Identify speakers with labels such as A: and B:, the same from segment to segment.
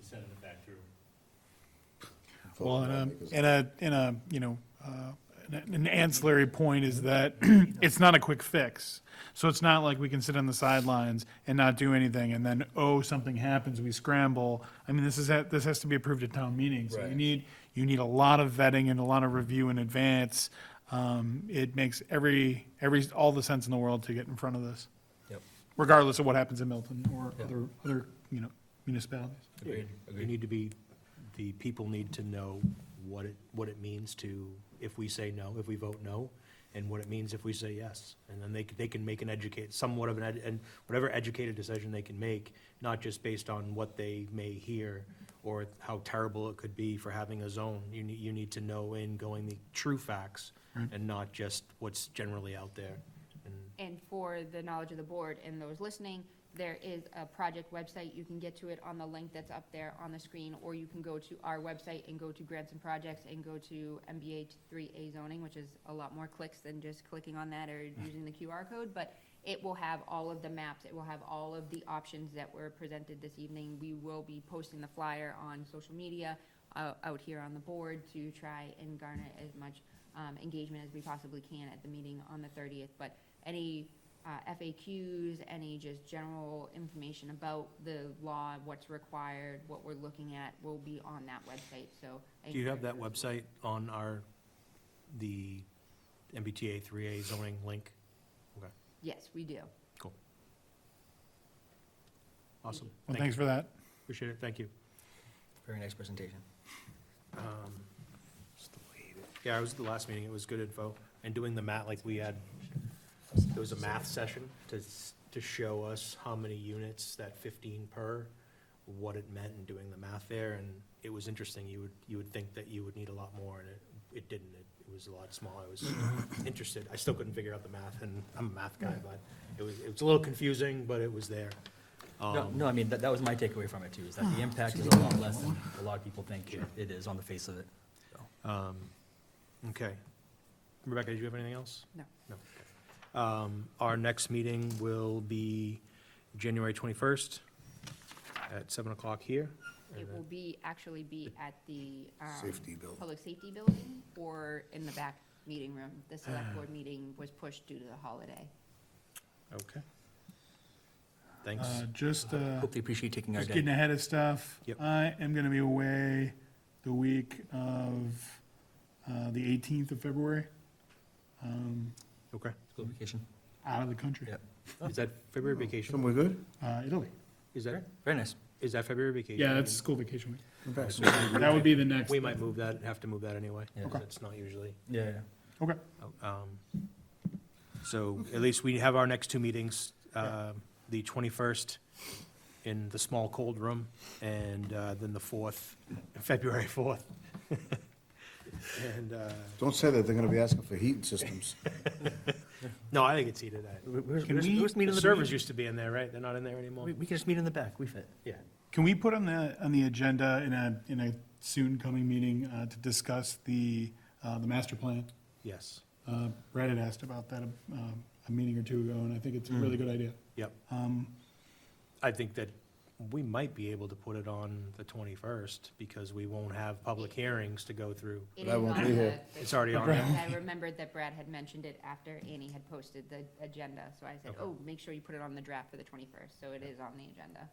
A: sending it back through.
B: Well, and
C: Because-
B: a, and a, and a, you know, uh, an an ancillary point is that it's not a quick fix. So it's not like we can sit on the sidelines and not do anything, and then, oh, something happens, we scramble. I mean, this is, ha- this has to be approved at town meetings. So you
A: Right.
B: need, you need a lot of vetting and a lot of review in advance. Um, It makes every, every, all the sense in the world to get in front of this,
D: Yep.
B: regardless of what happens in Milton or
D: Yeah.
B: other, other, you know, municipalities.
D: Agreed,
C: agreed.
D: You need to be, the people need to know what it, what it means to, if we say no, if we vote no, and what it means if we say yes. And then they, c- they can make an educate, somewhat of an, ed- and whatever educated decision they can make, not just based on what they may hear or how terrible it could be for having a zone. You need, you need to know in going the true facts and not just what's generally out there. And
E: And for the knowledge of the board and those listening, there is a project website. You can get to it on the link that's up there on the screen, or you can go to our website and go to grants and projects and go to MBH three A zoning, which is a lot more clicks than just clicking on that or using the QR code, but it will have all of the maps. It will have all of the options that were presented this evening. We will be posting the flyer on social media, uh, out here on the board to try and garner as much, um, engagement as we possibly can at the meeting on the thirtieth. But any uh, FAQs, any just general information about the law, what's required, what we're looking at, will be on that website, so. I
D: Do you have that
E: encourage those-
D: website on our, the MBTA 3A zoning link? Okay,
E: Yes, we do.
D: cool. Awesome.
B: Well,
D: Thank
B: thanks
D: you.
B: for that.
D: Appreciate it, thank you.
C: Very nice presentation.
D: Um, Yeah, I was at the last meeting, it was good info, and doing the math, like we had, there was a math session to, s- to show us how many units, that fifteen per, what it meant and doing the math there, and it was interesting, you would, you would think that you would need a lot more, and it, it didn't, it it was a lot smaller, I was interested, I still couldn't figure out the math, and I'm a math guy, but it was, it was a little confusing, but it was there.
C: No,
D: Um,
C: no, I mean, that, that was my takeaway from it too, is that
B: Ah,
C: the impact is a lot less than a lot of people think it- it is on the face of it.
D: Um, Okay. Rebecca, did you have anything else?
E: No.
D: No. okay. Um, Our next meeting will be January 21st at 7 o'clock here.
E: It will be, actually be at the. um,
F: Safety building.
E: Public safety building, or in the back meeting room. The select board meeting was pushed due to the holiday.
D: Okay. Thanks.
B: Uh, Just, uh,
C: Hope they appreciate taking our
B: just
C: day.
B: getting ahead of stuff.
D: Yep.
B: I am going to be away the week of uh, the 18th of February, um,
D: Okay.
C: School vacation.
B: out of the country.
C: Yep.
D: Is that February vacation?
F: Somewhere good?
B: Uh, Italy.
D: Is that,
C: Very nice.
D: is that February vacation?
B: Yeah, that's school vacation week.
F: In fact,
B: That would be the next.
D: We might move that, have to move that anyway.
C: Yeah.
D: 'cause It's not usually.
C: Yeah, yeah.
B: Okay.
D: Um, So at least we have our next two meetings, um, the 21st in the small cold room, and uh, then the 4th, February 4th. And, uh,
F: Don't say that, they're gonna be asking for heating systems.
D: no, I think it's heated. I-
C: We, we,
D: Can
C: we
D: we,
C: just meet
D: the
C: in the
D: servers
C: back.
D: used to be in there, right? They're not in there anymore?
C: We, we can just meet in the back, we fit.
D: Yeah.
B: Can we put on the, on the agenda in a, in a soon coming meeting uh, to discuss the, uh, the master plan?
D: Yes.
B: Uh, Brad had asked about that um, a meeting or two ago, and I think it's a really
D: Hmm.
B: good idea.
D: Yep.
B: Um,
D: I think that we might be able to put it on the 21st because we won't have public hearings to go through.
F: But
E: It is
F: I won't
E: on
F: be
E: the-
F: here.
E: the-
D: It's already on there.
E: I remembered that Brad had mentioned it after Annie had posted the agenda, so I said,
D: Okay.
E: oh, make sure you put it on the draft for the twenty-first, so it is on the agenda.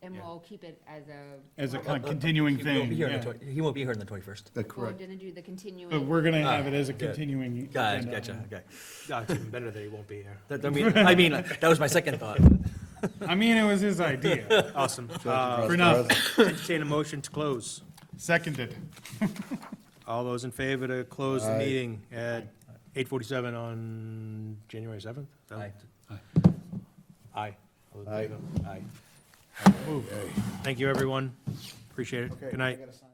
E: And
D: Yeah.
E: we'll keep it as a.
B: As a
E: we're-
B: kind of continuing
C: He won't
B: thing,
C: be here on the
B: yeah.
C: twen- He won't be here on the twenty-first.
F: That's
E: We're
F: correct.
E: gonna do the continuing.
B: But we're going to
C: Ah,
B: have it as a
C: good.
B: continuing.
C: Guys,
B: agenda
C: gotcha,
B: item.
C: okay.
D: Ah, It's even better that he won't be here.
C: That, I mean, I mean, that was my second thought.
B: I mean, it was his idea.
D: Awesome.
F: Cross
D: Uh,
B: for
F: the
B: now.
F: road.
D: Entertain a motion to close.
B: Seconded.
D: All those in favor to close the
F: Aye.
D: meeting at eight forty-seven on January seventh?
C: Aye.
D: Aye. All those in favor? Aye.
F: Hey.
D: Thank you, everyone. Appreciate it.
F: Okay,
D: Good
F: I
D: night.
F: gotta sign.